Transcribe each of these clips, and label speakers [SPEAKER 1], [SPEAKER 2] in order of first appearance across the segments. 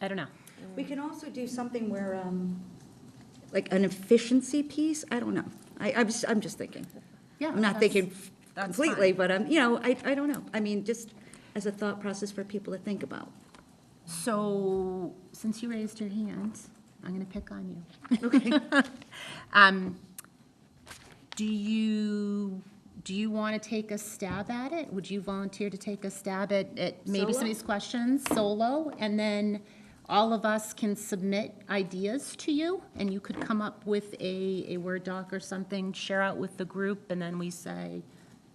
[SPEAKER 1] I don't know.
[SPEAKER 2] We can also do something where, um, like an efficiency piece, I don't know. I, I'm just, I'm just thinking.
[SPEAKER 1] Yeah,
[SPEAKER 2] I'm not
[SPEAKER 1] that's-
[SPEAKER 2] thinking
[SPEAKER 1] that's
[SPEAKER 2] completely,
[SPEAKER 1] fine.
[SPEAKER 2] but I'm, you know, I, I don't know. I mean, just as a thought process for people to think about.
[SPEAKER 1] So, since you raised your hand, I'm gonna pick on you. Okay. Um, do you, do you wanna take a stab at it? Would you volunteer to take a stab at, at maybe some of
[SPEAKER 2] Solo?
[SPEAKER 1] these questions solo? And then all of us can submit ideas to you, and you could come up with a, a Word doc or something, share out with the group, and then we say,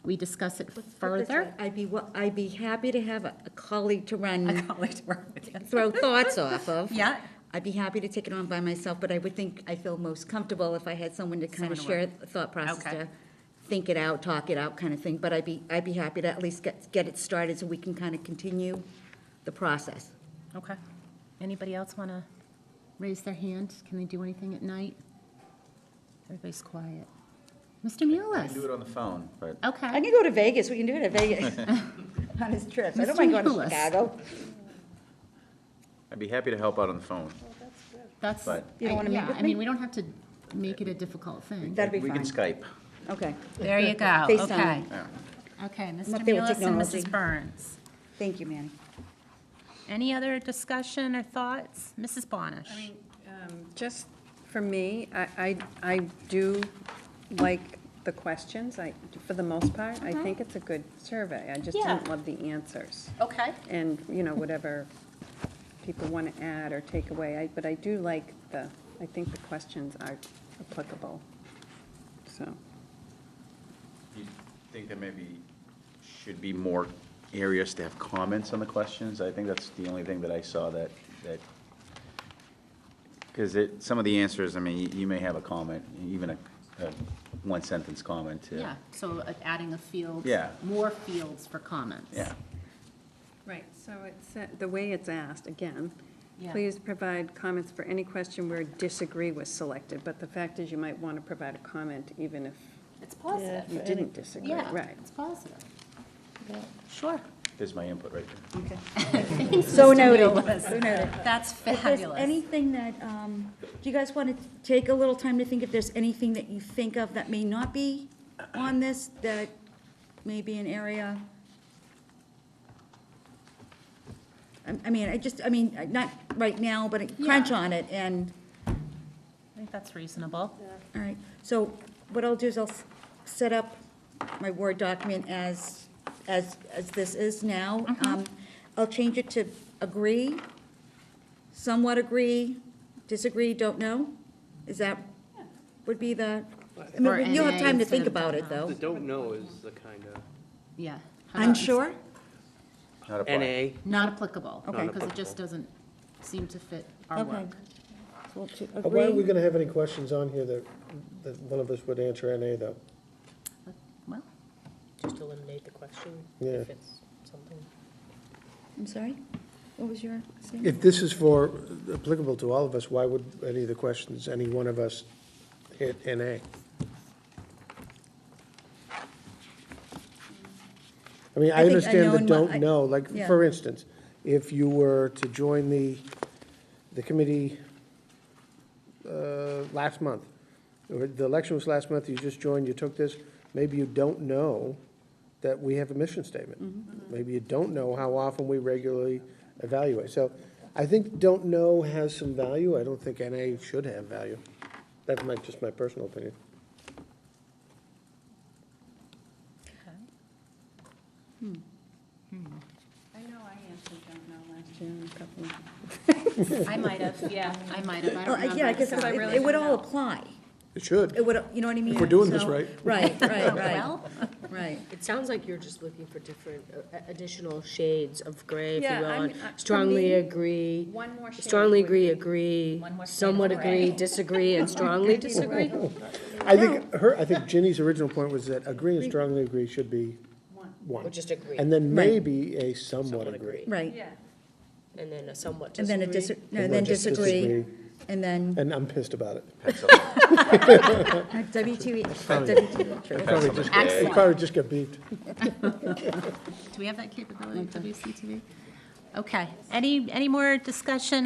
[SPEAKER 1] we discuss it
[SPEAKER 2] Put it this
[SPEAKER 1] further.
[SPEAKER 2] way, I'd be, wa- I'd be happy to have a a colleague to run,
[SPEAKER 1] colleague to work with you.
[SPEAKER 2] throw thoughts off of.
[SPEAKER 1] Yeah.
[SPEAKER 2] I'd be happy to take it on by myself, but I would think I feel most comfortable if I had someone to kind
[SPEAKER 1] Someone
[SPEAKER 2] of
[SPEAKER 1] to work
[SPEAKER 2] share the thought process,
[SPEAKER 1] Okay.
[SPEAKER 2] to think it out, talk it out kind of thing. But I'd be, I'd be happy to at least get, get it started so we can kind of continue the process.
[SPEAKER 1] Okay. Anybody else want to raise their hand? Can they do anything at night? Everybody's quiet. Mr.
[SPEAKER 3] I can do
[SPEAKER 1] Mullis?
[SPEAKER 3] it on the phone, but
[SPEAKER 2] I
[SPEAKER 1] Okay.
[SPEAKER 2] can go to Vegas, we can do it at Vegas. On his trips, I don't
[SPEAKER 1] Mr.
[SPEAKER 2] mind going to
[SPEAKER 1] Nicholas.
[SPEAKER 2] Chicago.
[SPEAKER 3] I'd be happy to help out on the phone.
[SPEAKER 1] That's,
[SPEAKER 3] But-
[SPEAKER 2] You don't wanna meet
[SPEAKER 1] yeah,
[SPEAKER 2] with
[SPEAKER 1] I mean, we don't have to make it a difficult thing.
[SPEAKER 2] That'd be
[SPEAKER 3] We can
[SPEAKER 2] fine.
[SPEAKER 3] Skype.
[SPEAKER 2] Okay,
[SPEAKER 1] There you go.
[SPEAKER 2] FaceTime.
[SPEAKER 1] Okay.
[SPEAKER 3] Yeah.
[SPEAKER 1] Okay, Mr.
[SPEAKER 2] up there with
[SPEAKER 1] Mullis and
[SPEAKER 2] technology.
[SPEAKER 1] Mrs. Burns.
[SPEAKER 2] thank you, Manny.
[SPEAKER 1] Any other discussion or thoughts? Mrs. Bonish?
[SPEAKER 4] I mean, um, Just for me, I, I I do like the questions, I, for the most part. I think it's a good survey. I just
[SPEAKER 1] Mm-hmm. Yeah.
[SPEAKER 4] didn't love the answers.
[SPEAKER 1] Okay.
[SPEAKER 4] And, you know, whatever people want to add or take away. I- But I do like the, I think the questions are applicable, so.
[SPEAKER 3] Do you think there maybe should be more areas to have comments on the questions? I think that's the only thing that I saw that, that, because it, some of the answers, I mean, you- you may have a comment, even a, a one-sentence comment. to-
[SPEAKER 1] Yeah, so uh, adding a field.
[SPEAKER 3] Yeah.
[SPEAKER 1] More fields for comments.
[SPEAKER 3] Yeah.
[SPEAKER 4] Right, so it's, the way it's asked, again,
[SPEAKER 1] Yeah.
[SPEAKER 4] please provide comments for any question where disagree was selected. But the fact is, you might want to provide a comment even if
[SPEAKER 1] It's positive.
[SPEAKER 4] You didn't disagree,
[SPEAKER 1] Yeah,
[SPEAKER 4] right.
[SPEAKER 1] it's positive. Sure.
[SPEAKER 3] There's my input right there.
[SPEAKER 2] So noted.
[SPEAKER 1] So noted. That's
[SPEAKER 2] If there's
[SPEAKER 1] fabulous.
[SPEAKER 2] anything that, um, do you guys want to take a little time to think if there's anything that you think of that may not be on this, that may be an area? I- I mean, I just, I mean, not right now, but crunch
[SPEAKER 1] Yeah.
[SPEAKER 2] on it, and,
[SPEAKER 1] I think that's reasonable.
[SPEAKER 2] all right. So what I'll do is I'll s- set up my Word document as, as, as this is now.
[SPEAKER 1] Mm-hmm.
[SPEAKER 2] Um, I'll change it to agree, somewhat agree, disagree, don't know? Is that, would be the, I
[SPEAKER 1] Or
[SPEAKER 2] mean, you'll have time
[SPEAKER 1] NA
[SPEAKER 2] to think
[SPEAKER 1] instead of
[SPEAKER 2] about it,
[SPEAKER 1] don't know.
[SPEAKER 2] though.
[SPEAKER 5] The don't know is the kind of
[SPEAKER 1] Yeah.
[SPEAKER 2] Unsure?
[SPEAKER 3] Not a problem.
[SPEAKER 5] NA.
[SPEAKER 1] Not applicable.
[SPEAKER 2] Okay.
[SPEAKER 1] Because it just doesn't seem to fit our
[SPEAKER 2] Okay.
[SPEAKER 1] work.
[SPEAKER 2] So to
[SPEAKER 6] Uh, Why are we
[SPEAKER 2] Agree,
[SPEAKER 6] gonna have any questions on here that, that one of us would answer NA though?
[SPEAKER 1] Well,
[SPEAKER 7] Just eliminate the question
[SPEAKER 6] Yeah.
[SPEAKER 7] if it's something.
[SPEAKER 2] I'm sorry? What was your statement?
[SPEAKER 6] If this is for, applicable to all of us, why would any of the questions, any one of us hit NA? I mean,
[SPEAKER 2] I
[SPEAKER 6] I
[SPEAKER 2] think
[SPEAKER 6] understand the
[SPEAKER 2] unknown mo- I-
[SPEAKER 6] don't know, like,
[SPEAKER 2] yeah.
[SPEAKER 6] for instance, if you were to join the, the committee uh, last month, or the election was last month, you just joined, you took this, maybe you don't know that we have a mission statement.
[SPEAKER 2] Mm-hmm.
[SPEAKER 6] Maybe you don't know how often we regularly evaluate. So I think don't know has some value. I don't think NA should have value. That's my, just my personal opinion.
[SPEAKER 4] I know I answered don't know last year in a couple of.
[SPEAKER 1] I might have, yeah, I might have. I
[SPEAKER 2] Oh,
[SPEAKER 1] don't
[SPEAKER 2] I-
[SPEAKER 1] remember.
[SPEAKER 2] Yeah, I guess
[SPEAKER 1] so-
[SPEAKER 2] it would- it would all apply.
[SPEAKER 6] It
[SPEAKER 2] It
[SPEAKER 6] should.
[SPEAKER 2] would, you know what I mean?
[SPEAKER 6] we're doing this
[SPEAKER 2] So-
[SPEAKER 6] right.
[SPEAKER 2] Right, right, right,
[SPEAKER 1] Well,
[SPEAKER 2] right.
[SPEAKER 7] It sounds like you're just looking for different, uh, additional shades of gray, if
[SPEAKER 4] Yeah,
[SPEAKER 7] you will,
[SPEAKER 4] I
[SPEAKER 7] on
[SPEAKER 4] mean, uh, for me,
[SPEAKER 7] strongly agree,
[SPEAKER 4] One more
[SPEAKER 7] strongly agree, agree,
[SPEAKER 1] One more shade
[SPEAKER 7] somewhat
[SPEAKER 1] of gray.
[SPEAKER 7] agree, disagree, and strongly disagree.
[SPEAKER 6] I think her, I think Ginny's original point was that agree and strongly agree should be one.
[SPEAKER 7] Or just agree,
[SPEAKER 6] And
[SPEAKER 7] and
[SPEAKER 6] then
[SPEAKER 2] Right.
[SPEAKER 6] maybe a somewhat
[SPEAKER 7] Somewhat
[SPEAKER 6] agree.
[SPEAKER 7] agree.
[SPEAKER 2] Right,
[SPEAKER 7] then a somewhat
[SPEAKER 2] and
[SPEAKER 7] disagree.
[SPEAKER 2] then a dis, no,
[SPEAKER 6] And
[SPEAKER 2] then
[SPEAKER 6] we're just
[SPEAKER 2] disagree,
[SPEAKER 6] disagree.
[SPEAKER 2] and then
[SPEAKER 6] And I'm pissed about it.
[SPEAKER 2] WTE, WTE.
[SPEAKER 6] Probably just-
[SPEAKER 1] Excellent.
[SPEAKER 6] It probably just got beeped.
[SPEAKER 1] Do we have that capability at WCTV? Okay. Any, any more discussion